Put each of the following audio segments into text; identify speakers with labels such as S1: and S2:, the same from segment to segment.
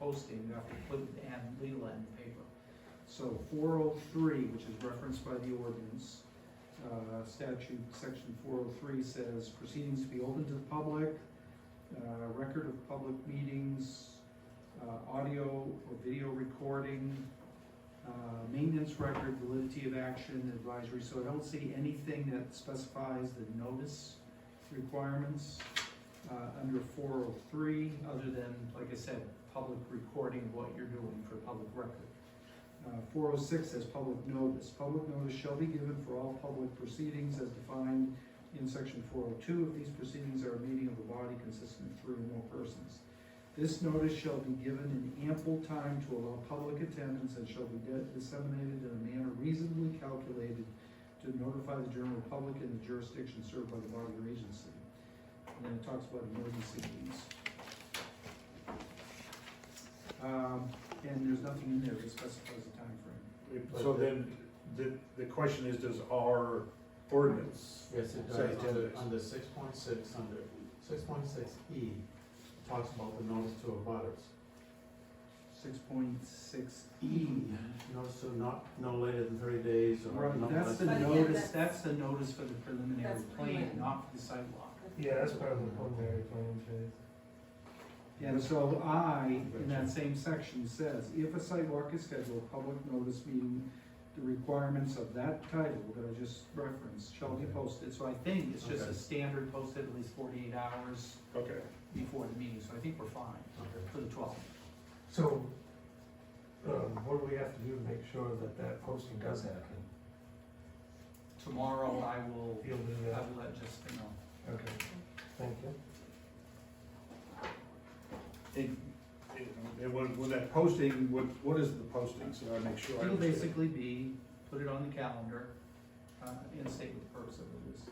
S1: posting, you have to put ad legal ad in the paper. So four oh three, which is referenced by the ordinance, uh, statute, section four oh three says proceedings to be open to the public, uh, record of public meetings, uh, audio or video recording, uh, maintenance record, validity of action, advisory, so I don't see anything that specifies the notice requirements uh, under four oh three, other than, like I said, public recording of what you're doing for public record. Four oh six says public notice. Public notice shall be given for all public proceedings as defined in section four oh two. If these proceedings are a meeting of the body consisting of three or more persons. This notice shall be given in ample time to allow public attendance and shall be de- disseminated in a manner reasonably calculated to notify the general public in the jurisdiction served by the body or agency. And then it talks about emergency meetings. Um, and there's nothing in there that specifies a timeframe.
S2: So then, the, the question is, does our ordinance,
S3: Yes, it
S2: Sorry,
S3: does,
S2: ten
S3: under,
S2: days.
S3: under six point six, under six point six E, talks about the notice to abutters.
S1: Six point six E.
S3: Notice to not, no later than thirty days or.
S1: Right,
S3: no
S1: that's
S3: less
S1: the
S3: than-
S4: But again,
S1: notice,
S4: that's-
S1: that's the notice for the preliminary
S4: That's
S1: plan,
S4: plan.
S1: not for the sidewalk.
S5: Yeah, that's part of the preliminary planning phase.
S1: And so I, in that same section, says, if a sidewalk is scheduled, public notice meeting, the requirements of that title that I just referenced shall be posted. So I think it's just
S2: Okay.
S1: a standard posted at least forty-eight hours
S2: okay,
S1: before the meeting, so I think we're fine
S3: Okay.
S1: for the twelfth.
S5: So, um, what do we have to do to make sure that that posting does happen?
S1: Tomorrow I will,
S5: You'll do
S1: I
S5: that,
S1: will let Jessica know.
S5: okay, thank you.
S2: and, and when, when that posting, what, what is the posting, so I make sure I
S1: It'll
S2: understand.
S1: basically be, put it on the calendar, uh, and state what the purpose of it is.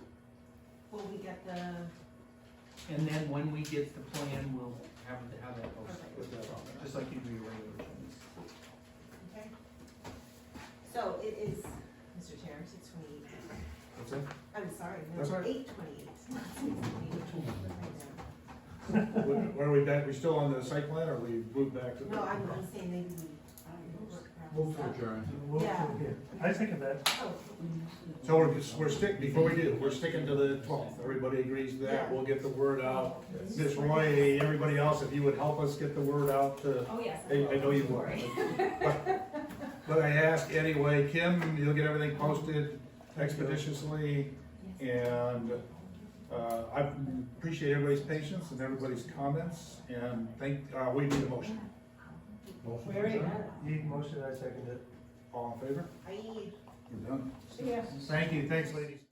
S4: Will we get the,
S1: And then when we get the plan, we'll have, it- have that posted,
S4: Perfect.
S2: Put that on there.
S1: just like you do your regular things.
S4: okay? So it is, Mr. Chair, six twenty-eight,
S2: What's that?
S4: I'm sorry,
S2: That's all
S4: no,
S2: right.
S4: eight twenty-eight, not six twenty-eight.
S2: Where- Where are we back, we still on the site plan, or we moved back to? the-
S4: No, I'm, I'm saying maybe we. work around
S3: Move to
S4: this.
S3: adjourn.
S5: We'll-
S4: Yeah.
S5: I think of that.
S4: Oh,
S2: So we're, just- we're stick, before we do, we're sticking to the twelfth, everybody agrees to that,
S4: Yeah.
S2: we'll get the word out.
S4: okay.
S2: Ms. Roy, everybody else, if you would help us get the word out to,
S4: Oh, yes.
S2: I, I know you
S4: Don't
S2: would.
S4: worry.
S2: But I ask anyway, Kim, you'll get everything posted expeditiously,
S4: Yes.
S2: and, uh, I appreciate everybody's patience and everybody's comments, and thank, uh, we need a motion.
S5: Motion.
S4: Very good.
S5: Need motion, I second it.
S2: All in favor?
S4: Are you?
S2: You're done. Thank you, thanks, ladies.